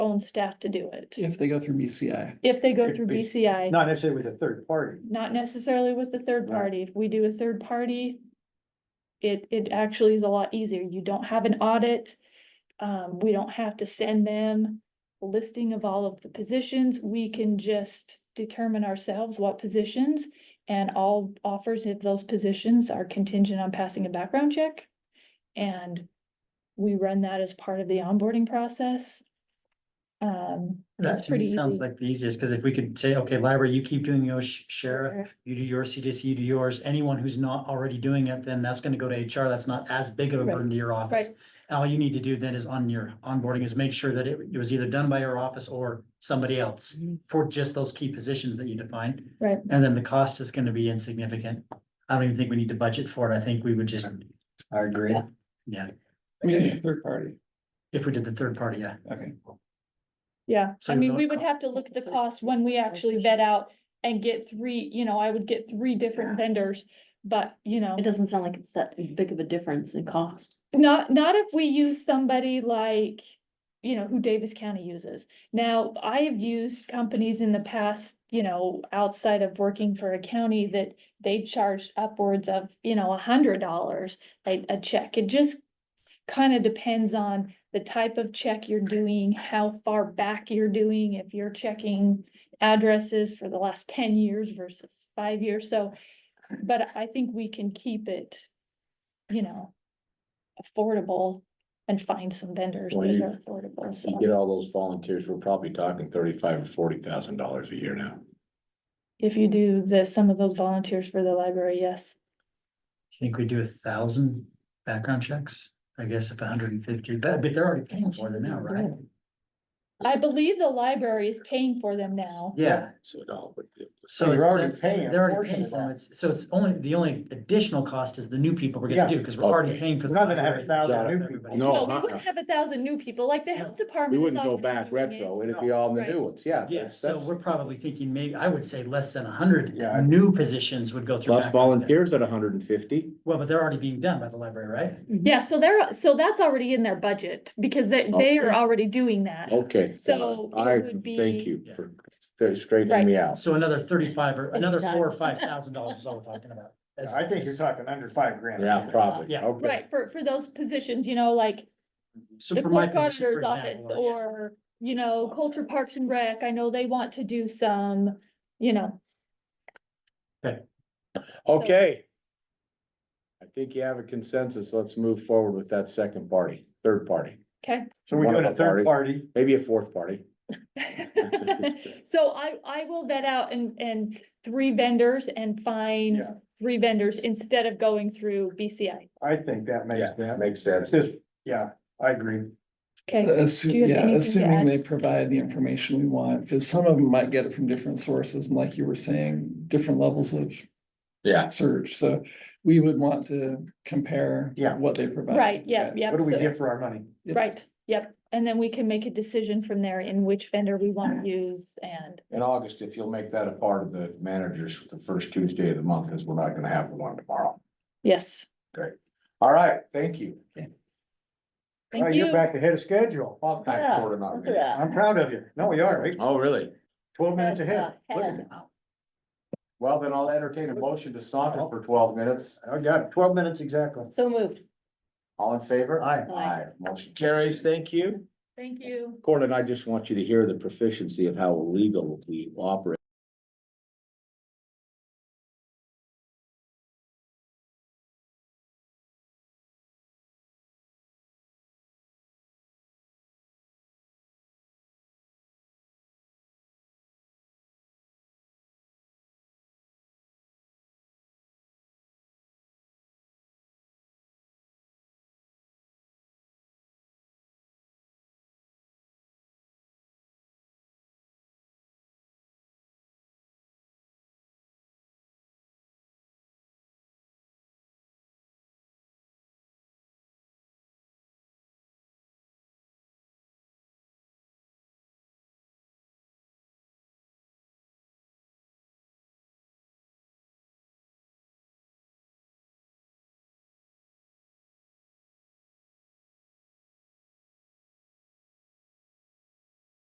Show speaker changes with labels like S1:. S1: staff to do it.
S2: if they go through BCI.
S1: If they go through
S2: Could be.
S1: BCI,
S3: Not necessarily with a third party.
S1: not necessarily with the third
S3: Right.
S1: party. If we do a third party. It, it actually is a lot easier. You don't have an audit. Um, we don't have to send them a listing of all of the positions. We can just determine ourselves what positions. And all offers if those positions are contingent on passing a background check. And we run that as part of the onboarding process. Um.
S4: That
S1: it's
S4: to me
S1: pretty
S4: sounds
S1: easy.
S4: like the easiest, because if we could say, okay, library, you keep doing your sh- sheriff, you do your CDC, you do yours, anyone who's not already doing it, then that's gonna go to HR, that's not as big of a
S1: Right.
S4: burden to your office. All you need to do then is on your onboarding is make sure that it it was either done by your office or somebody else for just those key positions that you define.
S1: Mm-hmm. Right.
S4: And then the cost is gonna be insignificant. I don't even think we need to budget for it. I think we would just,
S3: I agree.
S1: Yeah.
S4: yeah,
S2: I mean, third party,
S4: if we did the third party, yeah.
S2: okay.
S1: Yeah,
S4: So
S1: I
S4: you're
S1: mean,
S4: not
S1: we would
S4: co-
S1: have to look at the
S4: Okay.
S1: cost when we actually vet out and get three, you know, I would get three different vendors. But, you know,
S5: It doesn't sound like it's that big of a difference in cost.
S1: not, not if we use somebody like, you know, who Davis County uses. Now, I have used companies in the past, you know, outside of working for a county that they charged upwards of, you know, a hundred dollars a, a check. It just kind of depends on the type of check you're doing, how far back you're doing, if you're checking addresses for the last ten years versus five years, so. But I think we can keep it, you know, affordable and find some vendors
S6: Well,
S1: that
S6: you-
S1: are affordable,
S6: You
S1: so.
S6: get all those volunteers, we're probably talking thirty-five or forty thousand dollars a year now.
S1: If you do the, some of those volunteers for the library, yes.
S4: I think we do a thousand background checks, I guess if hundred and fifty, but, but they're already paying for them now, right?
S1: I believe the library is paying for them now.
S4: Yeah,
S6: So it all would. be-
S4: so
S3: You're
S4: it's,
S3: already
S4: that's-
S3: paying a
S4: they're already
S3: portion
S4: paying
S3: of
S4: for them,
S3: that.
S4: it's, so it's only, the only additional cost is the new people we're gonna
S3: Yeah.
S4: do, because we're already
S6: Okay.
S4: paying for.
S3: We're
S4: the
S3: not gonna have a
S4: library.
S3: thousand new
S4: Everybody.
S3: people.
S1: No,
S6: No.
S1: we
S6: uh-uh.
S1: wouldn't have a thousand new people, like the health department.
S6: We
S1: is
S6: wouldn't go
S1: already
S6: back
S1: doing it.
S6: retro, it'd be all the
S1: Right.
S6: new ones, yeah.
S4: Yeah,
S6: that's-
S4: so
S6: that's-
S4: we're probably thinking maybe, I would say less than hundred
S3: Yeah.
S4: new positions would go through.
S6: Plus
S4: background checks.
S6: volunteers at hundred and fifty,
S4: Well, but they're already being done by the library, right?
S1: Yeah, so they're, so that's already in their budget because they, they are
S6: Okay.
S1: already doing that.
S6: okay.
S1: So
S6: uh, I
S1: it would be-
S6: Thank you for st- straightening
S1: Right.
S6: me out.
S4: So another thirty-five or another
S5: Anytime.
S4: four or five thousand dollars is all we're talking about. As-
S3: I think you're
S4: as-
S3: talking under five grand.
S6: Yeah, probably,
S4: Yeah.
S6: okay.
S1: Right, for, for those positions, you know, like
S4: So
S1: the
S4: for my
S1: court
S4: position, for
S1: auditor's office
S4: example, yeah.
S1: or, you know, culture parks and rec. I know they want to do some, you know,
S6: Okay. I think you have a consensus, let's move forward with that second party, third party,
S1: okay?
S3: So we
S6: One
S3: go
S6: of
S3: to
S6: the
S3: third party.
S6: maybe a fourth party.
S1: So I, I will vet out and, and three vendors and find
S3: Yeah.
S1: three vendors instead of going through BCI.
S3: I think that makes
S6: Yeah,
S3: that.
S6: makes sense.
S3: It's just- Yeah, I agree.
S1: Okay,
S2: Uh, Assu-
S1: Do you have
S2: yeah,
S1: anything to
S2: assuming
S1: add?
S2: they provide the information we want, because some of them might get it from different sources, and like you were saying, different levels of
S6: Yeah.
S2: surge, so we would want to compare
S3: Yeah.
S2: what they provide.
S1: right, yeah, yeah.
S3: What do we get for our money?
S2: Yep.
S1: Right, yep, and then we can make a decision from there in which vendor we wanna use and,
S6: In August, if you'll make that a part of the managers, the first Tuesday of the month, is we're not gonna have one tomorrow.
S1: yes,
S6: All right, thank you.
S3: Oh,
S1: thank you.
S3: you're back ahead of schedule.
S6: Well, thank
S5: Yeah,
S6: Gordon, not
S5: look
S6: me.
S5: at that.
S3: I'm proud of you. No, we are, right?
S6: Oh, really?
S3: Twelve minutes ahead. Look at that.
S6: Well, then I'll entertain a motion to saunter for twelve minutes.
S3: I got it. twelve minutes exactly.
S5: So moved.
S6: All in favor?
S3: Aye.
S6: Aye. Motion carries. Thank you.
S1: Thank you.
S6: Gordon, I just want you to hear the proficiency of how legal we operate.